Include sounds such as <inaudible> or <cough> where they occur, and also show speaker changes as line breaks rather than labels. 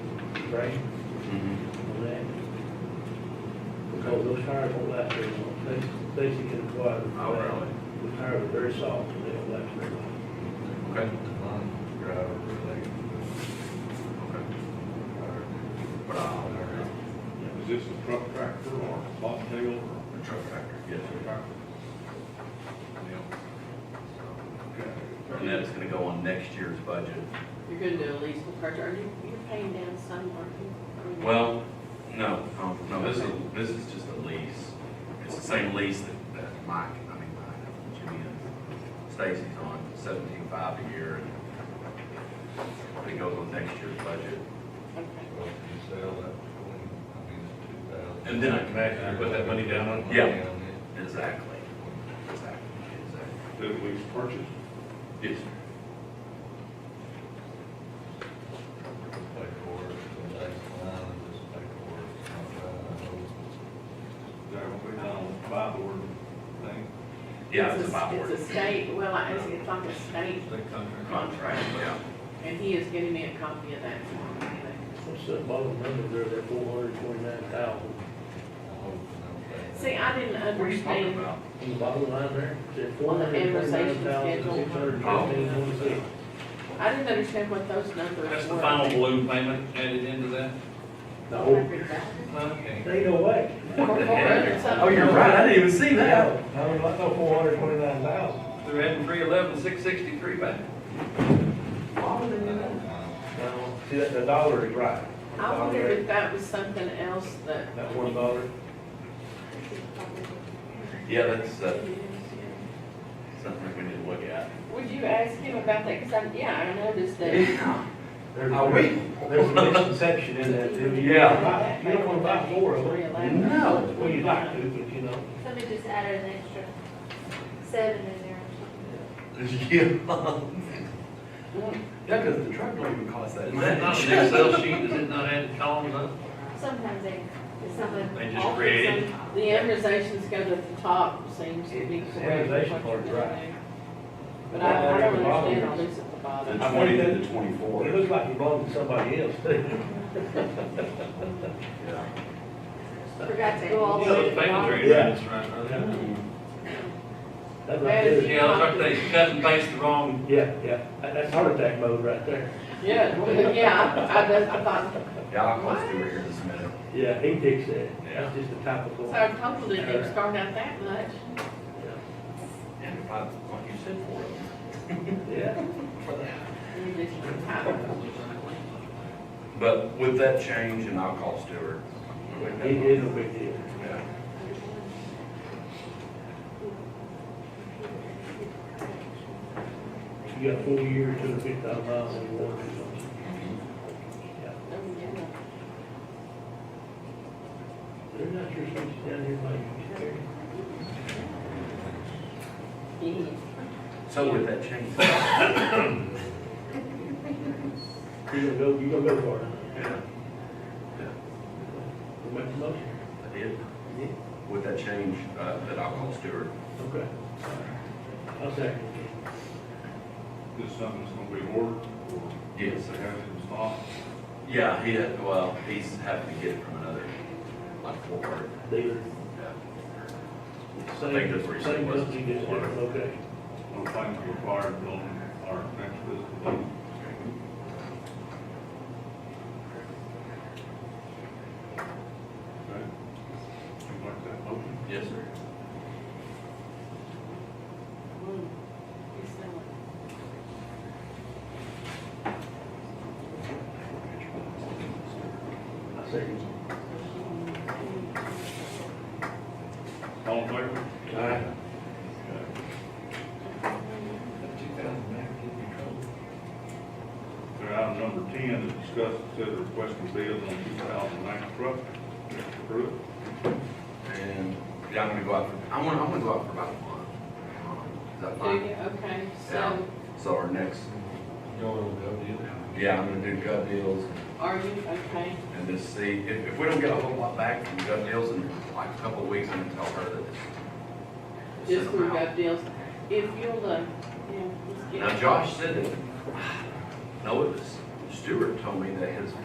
right?
Mm-hmm.
on that. Because those tires won't last very long. They, they can get acquired.
Oh, really?
The tires are very soft and they don't last very long.
Okay.
Non-driver related.
But I'll,
Is this a truck tractor or a bobtail or?
the truck factor.
Yes, sir. Okay.
And that's gonna go on next year's budget.
You're gonna do a lease with Carter, are you, you're paying down some, aren't you? I mean,
Well, no, no, no, this is, this is just a lease. It's the same lease that, that Mike, I mean, Mike, Jimmy and Stacy's on, seventeen five a year. and It goes on next year's budget.
Okay.
Well, if you sell that between, I mean, it's two thousand.
And then I can
actually put that money down on?
Yeah. Exactly. Exactly, exactly.
Did we purchase?
Yes.
Pay for it, the next line, and just pay for it. It's not,
There will be no buy board thing.
Yeah, it's about
a-
word.
It's a state, well, I- it's, it's like a state,
uh, They come here.
Contract, yeah.
and he is giving me a copy of that form, you know.
What's that bottom number there, that four hundred twenty-nine thousand?
I hope they don't pay.
See, I didn't
What are you talking
understand,
about?
On the bottom line there, it's four
On the
hundred
amortization
twenty-nine thousand,
schedule.
six hundred fifteen twenty-six.
I didn't understand what those numbers were.
That's the final balloon payment added into that?
No,
Okay.
they go away.
<laughs> Oh, you're right, I didn't even see that.
I mean, I know four hundred twenty-nine thousand.
They're adding three eleven, six sixty-three back.
Now, see, that, the dollar is right.
I wondered if that was something else that.
That one dollar.
Yeah, that's, uh, something we need to look at.
Would you ask him about that, cause I, yeah, I noticed that.
Yeah.
There's-
Are we-
There's a misconception in that, too. You
Yeah.
don't buy- You don't wanna buy four of them.
No.
Well, you'd like to, but you know.
Somebody just added an extra seven in there.
Yeah, because the truck don't even cost that
Is that not
much.
an Excel sheet? Is it not added columns up?
Sometimes they, someone.
They just create it.
The amortizations go to the top, seems to be
It's the
correct.
amortization
what
part,
you're
right.
doing. But I, I don't understand all this at the bottom.
The twenty to the twenty-four.
It looks like you belong to somebody else, too.
Yeah.
Forgot to go all the way
Those
to the
payments are
bottom.
in
Yeah.
this right now.
That's right there.
Yeah, that's right, they cut and paste the wrong,
Yeah, yeah, That- that's heart attack mode right there.
<laughs> Yeah, well,
<laughs>
yeah, I, I just- I thought,
Yeah, I'll close to it here in just a minute.
Yeah, he picks that,
Yeah.
that's just a typical.
so I'm totally didn't start out that much.
And if I, like you said, four of them.
Yeah,
You just-
But with that change, and I'll call Stewart. Mm-hmm.
it is a big deal.
Yeah.
You got four years, two hundred fifty thousand miles, and you want to do something. Yeah.
Oh,
They're not your seats down here like you carry.
Yeah.
So with that change. Yeah.
You're gonna go, you're gonna go for it.
Yeah,
You Make the motion.
I did. With that change, uh, that I'll call Stewart.
Okay. I'll second it.
This is something that's gonna be ordered or?
Yes.
They have it in stock.
Yeah, he, had- well, he's having to get it from another, like, Fort
Dealer.
Yeah. think that's where
Same,
you
same
said was.
company, just different location.
No things required on our next fiscal. Okay. You like that motion?
Yes, sir.
Mm. It's not like-
I second it.
All in
All
favor?
right.
Okay. Okay, item number ten is discuss, consider requesting bids on two thousand nine truck. Mr. Pruitt,
And, yeah, I'm gonna go out, for- I wanna, I wanna go out for about a month. Is that
Do
fine?
you, okay,
Yeah.
so
So our next,
Y'all will go do that.
yeah, I'm gonna do gut deals
are you, okay,
and just see, if, if we don't get a whole lot back from gut deals in like a couple of weeks, I'm gonna tell her that. it's-
just
send them
through
out.
gov deals, if you'll, uh, yeah, let's
<sighs>
get.
Now Josh said that, no, it was Stewart told me that his